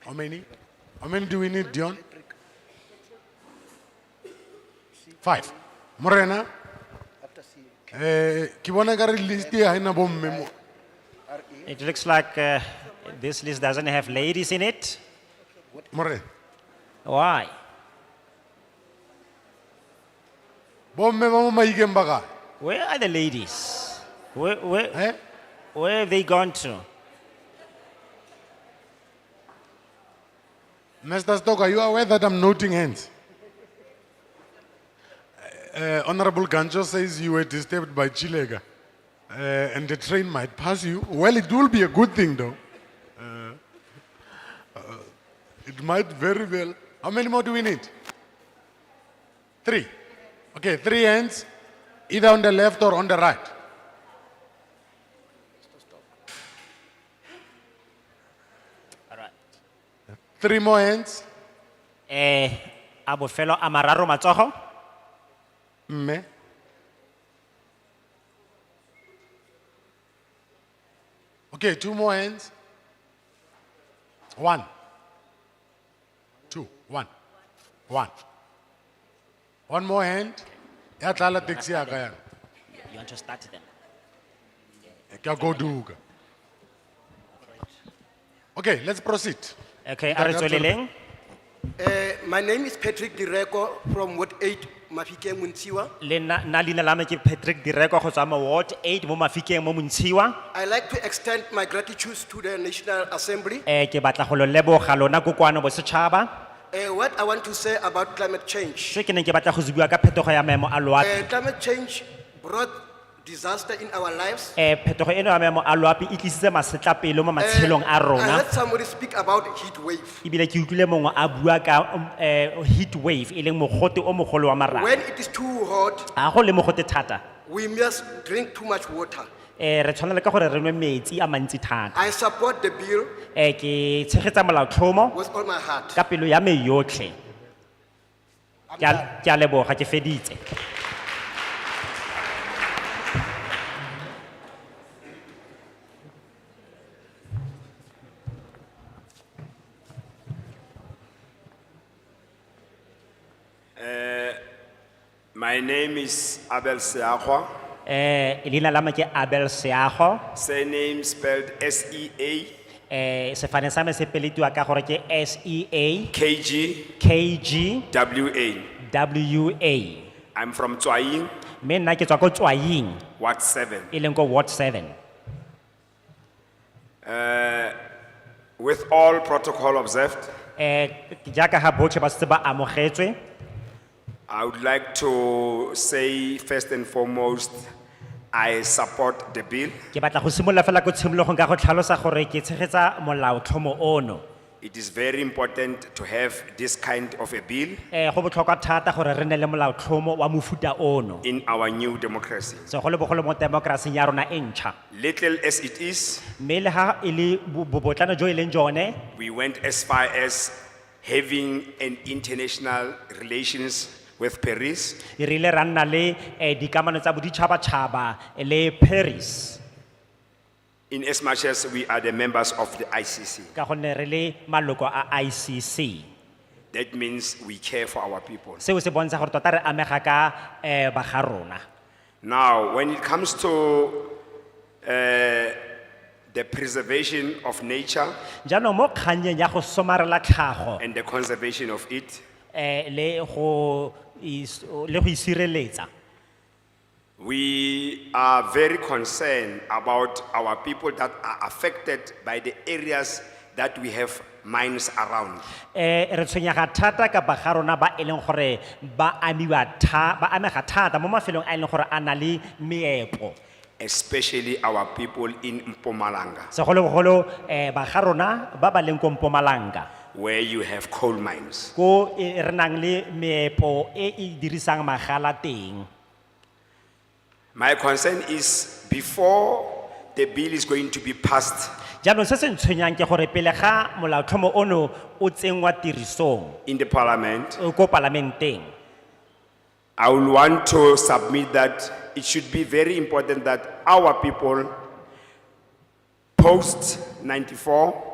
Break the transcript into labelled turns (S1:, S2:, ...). S1: How many? How many do we need, Dion? Five. Morena? Eh, ke bona ekare list e ha ena bomme mo.
S2: It looks like uh, this list doesn't have ladies in it.
S1: Morena.
S2: Why?
S1: Bomme ba mo maikeng ba kae?
S2: Where are the ladies? Where, where,
S1: Eh?
S2: where have they gone to?
S1: Mr. Stoker, you are aware that I'm noting hands. Uh, Honorable Ganjo says you were disturbed by Chilega uh, and the train might pass you. Well, it will be a good thing though. Uh, uh, it might very well. How many more do we need? Three. Okay, three hands, either on the left or on the right.
S2: All right.
S1: Three more hands.
S2: Eh, a bofelo a mararo matsogo.
S1: Mme. Okay, two more hands. One. Two. One. One. One more hand. Ya tlala taxi ya ka yana.
S2: You want to start them?
S1: Ke a goduka. Okay, let's proceed.
S2: Okay, a re tsweleleng.
S3: Eh, my name is Patrick Direko from Ward Eight, Mafike Muntiwa.
S2: Le na, na leina la me ke Patrick Direko go tswa mo Ward 8 mo Mafikeng mo Montshiwa.
S3: I like to extend my gratitude to the National Assembly.
S2: Eh, ke batla go lo leboga lona kokoano bosetšhaba.
S3: Eh, what I want to say about climate change.
S2: Se ke neng ke batla go se bua ka phetogo ya maemo a loapi.
S3: Eh, climate change brought disaster in our lives.
S2: Eh, phetogo eno ya maemo a loapi e tlisitse masetlapelo mo
S3: Eh,
S2: matshelong a
S3: I
S2: rona.
S3: heard somebody speak about heat wave.
S2: Ebile ke utlwile mongwe a bua ka um, eh, heat wave e leng mogote o mogolo wa marang.
S3: When it is too hot,
S2: A go le mogote thata.
S3: we must drink too much water.
S2: Eh, re tshwanela ka gore re nwe metsi a mantsi thata.
S3: I support the bill
S2: Eh, ke tshegetsa molaotlhomo
S3: with all my heart.
S2: ka pelo ya me yotlhe. Ke a- ke a leboga ke feditse.
S4: My name is Abel Seahwa,
S2: Eh, leina la me ke Abel Seago.
S4: surname spelled S E A
S2: Eh, sefane sa me se peletiwa ka gore ke S E A
S4: K G
S2: K G
S4: W A.
S2: W A.
S4: I'm from Twaying,
S2: Me nna ke tswa ko Tswaying
S4: Ward 7.
S2: e leng ko Ward 7.
S4: With all protocol observed,
S2: Eh jaaka ha botlhe ba setse ba amogetswe,
S4: I would like to say first and foremost, I support the bill.
S2: ke batla go simolola fela ko tshimologong ka go tlhalosa gore ke tshegetsa molaotlhomo ono.
S4: It is very important to have this kind of a bill
S2: Eh go botlhokwa thata gore re ne le molaotlhomo wa mofuta ono.
S4: in our new democracy.
S2: So go le bogolo mo demokrasing ya rona e ntšha.
S4: Little as it is,
S2: Mme le ha e le bo- bobotlana jo e leng jone,
S4: we went as far as having an international relations with Paris.
S2: e rile ra nna le eh dikamano tsa boditšhabatšhaba le Paris.
S4: in as much as we are the members of the ICC.
S2: Ka gonne re le maloko a ICC.
S4: That means we care for our people.
S2: seo se bontsha gore tota re amega ka eh ba ga rona
S4: Now, when it comes to eh, the preservation of nature
S2: jaanong mo kganyeng ya go somarela tlhago
S4: and the conservation of it,
S2: eh le go is- le go isireletsa
S4: we are very concerned about our people that are affected by the areas that we have mines around.
S2: eh re tshwenyega thata ka ba ga rona ba e leng gore ba amiwa tha ba amega thata mo mafelong a e leng gore a na le meepo
S4: Especially our people in Mpumalanga,
S2: segolobogolo eh ba ga rona ba ba leng ko mpomalanga
S4: where you have coal mines.
S2: ko eh, re nang le meepo e e dirisang magala teng
S4: My concern is before the bill is going to be passed,
S2: jaanong se se ntshwenyang ke gore pele ga molaotlhomo ono o tsenngwa tirisong
S4: in the parliament,
S2: eh, ko palamenteng
S4: I will want to submit that it should be very important that our people post ninety-four